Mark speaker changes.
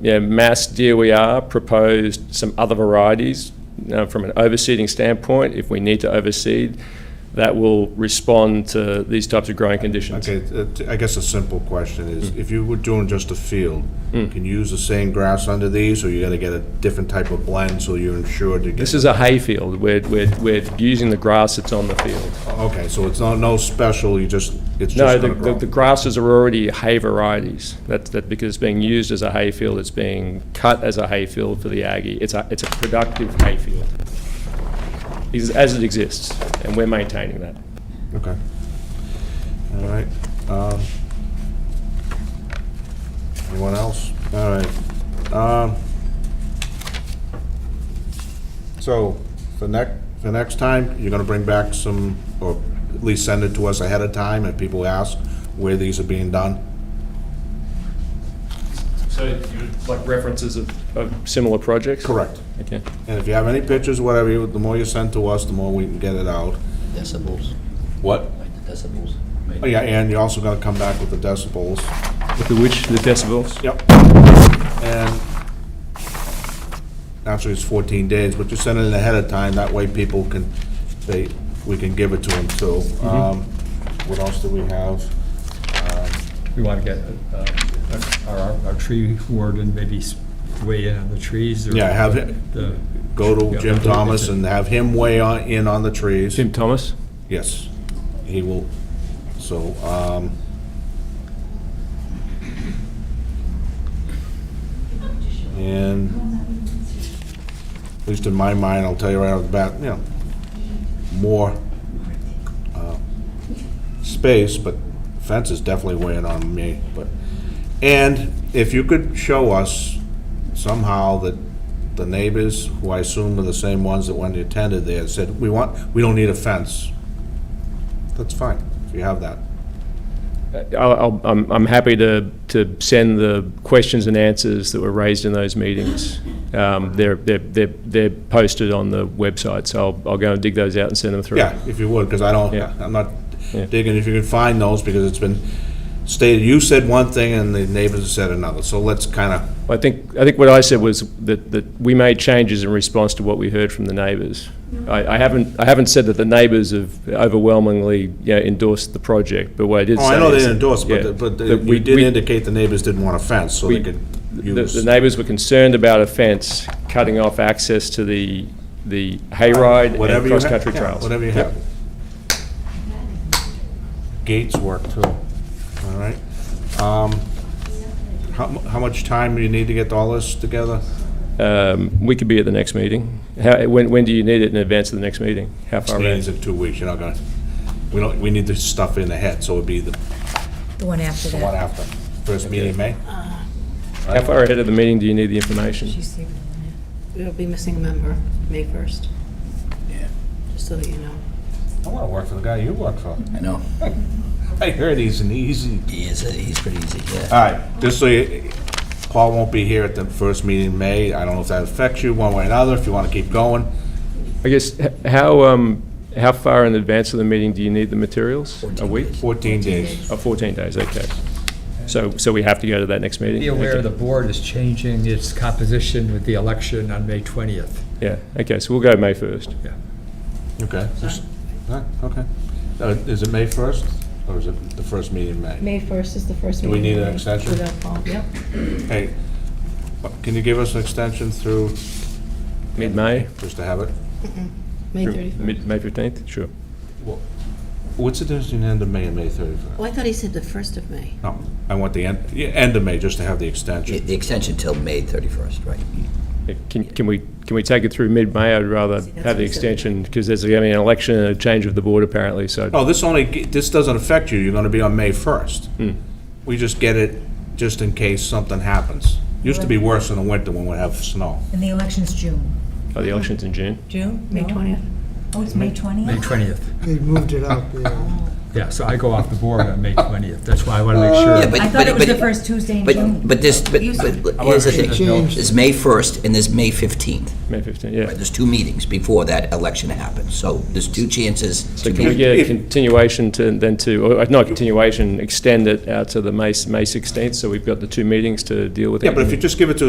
Speaker 1: Yeah, Mass DOER proposed some other varieties uh, from an overseeding standpoint. If we need to overseed, that will respond to these types of growing conditions.
Speaker 2: Okay, uh, t- I guess a simple question is,
Speaker 1: Hmm.
Speaker 2: if you were doing just a field, can you use the same grass under these, or you gotta get a different type of blend, so you're insured to
Speaker 1: This
Speaker 2: get?
Speaker 1: is a hayfield. We're, we're, we're using the grass that's on the field.
Speaker 2: Okay, so it's not, no special, you just, it's
Speaker 1: No,
Speaker 2: just
Speaker 1: the,
Speaker 2: gonna
Speaker 1: the
Speaker 2: grow?
Speaker 1: the grasses are already hay varieties. That's, that, because it's being used as a hayfield, it's being cut as a hayfield for the Aggie. It's a, it's a productive hayfield. Is- As it exists, and we're maintaining that.
Speaker 2: Okay. All right. um, Anyone else? All right. um, So, for next, for next time, you're gonna bring back some, or at least send it to us ahead of time, if people ask where these are being done?
Speaker 1: So like references of, of similar projects?
Speaker 2: Correct.
Speaker 1: Okay.
Speaker 2: And if you have any pictures, whatever, you- the more you send to us, the more we can get it out.
Speaker 3: decibels,
Speaker 2: What?
Speaker 3: like the decibels.
Speaker 2: Oh, yeah, and you're also gonna come back with the decibels.
Speaker 1: The which, the decibels?
Speaker 2: Yep. And actually, it's 14 days, but you send it ahead of time, that way people can, they, we can give it to them, too. Um, What else do we have? Um,
Speaker 4: We want to get uh, our, our- our tree warden maybe s- weigh in on the trees or.
Speaker 2: Yeah, have it-
Speaker 4: the-
Speaker 2: Go to
Speaker 4: Yeah.
Speaker 2: Jim Thomas and have him weigh on- in on the trees.
Speaker 1: Jim Thomas?
Speaker 2: Yes, he will, so, um, and, at least in my mind, I'll tell you right off the bat, you know, more, uh, space, but fence is definitely weighing on me, but, and if you could show us somehow that the neighbors, who I assume are the same ones that when you attended there, said, we want, we don't need a fence, that's fine, if you have that.
Speaker 1: Uh, I'll, I'll- I'm, I'm happy to, to send the questions and answers that were raised in those meetings. Um, They're, they're, they're they're posted on the website, so I'll, I'll go and dig those out and send them through.
Speaker 2: Yeah, if you would, because I don't,
Speaker 1: Yeah.
Speaker 2: I'm not
Speaker 1: Yeah.
Speaker 2: digging, if you can find those, because it's been stated, you said one thing and the neighbors said another, so let's kind of,
Speaker 1: I think, I think what I said was that, that we made changes in response to what we heard from the neighbours. I, I haven't, I haven't said that the neighbours have overwhelmingly, you know, endorsed the project, but what I did say
Speaker 2: oh, I know they
Speaker 1: is-
Speaker 2: didn't endorse,
Speaker 1: yeah,
Speaker 2: but, the- but the-
Speaker 1: that we-
Speaker 2: you did
Speaker 1: we-
Speaker 2: indicate the neighbors didn't want a fence, so they
Speaker 1: we-
Speaker 2: could
Speaker 1: The, the
Speaker 2: use,
Speaker 1: neighbours were concerned about a fence cutting off access to the, the hayride
Speaker 2: whatever
Speaker 1: and
Speaker 2: you have,
Speaker 1: cross-country
Speaker 2: yeah,
Speaker 1: trails.
Speaker 2: whatever you have. Gates work too, all right. Um, How, mu- how much time do you need to get all this together?
Speaker 1: Um, we could be at the next meeting. How, when, when do you need it in advance of the next meeting? How far?
Speaker 2: Meetings
Speaker 1: out?
Speaker 2: in two weeks, you're not gonna, we don't, we need this stuff in ahead, so it'd be the
Speaker 5: The one after
Speaker 2: one
Speaker 5: that.
Speaker 2: after, first meeting in May?
Speaker 1: How far ahead of the meeting do you need the information?
Speaker 5: She's the one that-
Speaker 6: We'll be missing a member, May 1st. Yeah. Just so that you know.
Speaker 2: I want to work for the guy you work for.
Speaker 3: I know.
Speaker 2: I heard he's an easy.
Speaker 3: He is, he's pretty easy, yeah.
Speaker 1: Uh,
Speaker 2: All right, just so you, Paul won't be here at the first meeting in May. I don't know if that affects you one way or another, if you want to keep going.
Speaker 1: I guess, h- how, um, how far in advance of the meeting do you need the materials? A week?
Speaker 2: 14 days.
Speaker 1: Oh, 14 days, okay. So, so we have to go to that next meeting?
Speaker 4: Be aware
Speaker 1: Okay.
Speaker 4: the board is changing its composition with the election on May 20th.
Speaker 1: Yeah, okay, so we'll go May 1st.
Speaker 4: Yeah.
Speaker 2: Okay. just- all right, Okay. Uh, Is it May 1st, or is it the first meeting in May?
Speaker 6: May 1st is the first
Speaker 2: Do
Speaker 6: meeting.
Speaker 2: we need an
Speaker 6: in May.
Speaker 2: extension?
Speaker 6: Without Paul, Yep.
Speaker 2: Hey, what- can you give us an extension through,
Speaker 1: Mid-May?
Speaker 2: just to have it?
Speaker 6: May
Speaker 1: Sure.
Speaker 6: 31st.
Speaker 1: Mid, May 15th, sure.
Speaker 2: Well, What's the difference between end of May and May 31st?
Speaker 6: Oh, I thought he said the 1st of May.
Speaker 2: No, I want the end, yeah, end of May, just to have the
Speaker 3: The
Speaker 2: extension.
Speaker 3: the extension till May 31st, right?
Speaker 1: Yeah, Can, can we, can we take it through mid-May? I'd rather
Speaker 6: See, that's
Speaker 1: have
Speaker 6: what
Speaker 1: the
Speaker 6: I said.
Speaker 1: extension, because there's going to be an election and a change of the board apparently, so.
Speaker 2: Oh, this only, this doesn't affect you, you're gonna be on May first. We just get it just in case something happens. Used to be worse in the winter when we have snow.
Speaker 5: And the election's June.
Speaker 1: Oh, the election's in June?
Speaker 5: June?
Speaker 6: May
Speaker 5: No?
Speaker 6: 20th.
Speaker 5: Oh, it's May
Speaker 4: May
Speaker 5: 20th?
Speaker 4: 20th.
Speaker 7: They moved it up, yeah.
Speaker 4: Yeah, so I go off the board on May 20th. That's why I want to make sure.
Speaker 3: Yeah, but-
Speaker 5: I thought it was
Speaker 3: but-
Speaker 5: the first Tuesday in June.
Speaker 3: But, but this, but but here's the
Speaker 7: It
Speaker 3: thing.
Speaker 7: changed.
Speaker 3: There's May 1st and there's May 15th.
Speaker 1: May 15th,
Speaker 3: Right,
Speaker 1: yeah.
Speaker 3: There's two meetings before that election happens, so there's two chances
Speaker 1: So
Speaker 3: to
Speaker 1: can we
Speaker 3: be...
Speaker 1: get a
Speaker 2: If-
Speaker 1: continuation to, then to, or uh, not continuation, extend it out to the May, May 16th, so we've got the two meetings to deal with?
Speaker 2: Yeah, but if
Speaker 1: that.
Speaker 2: you just give it to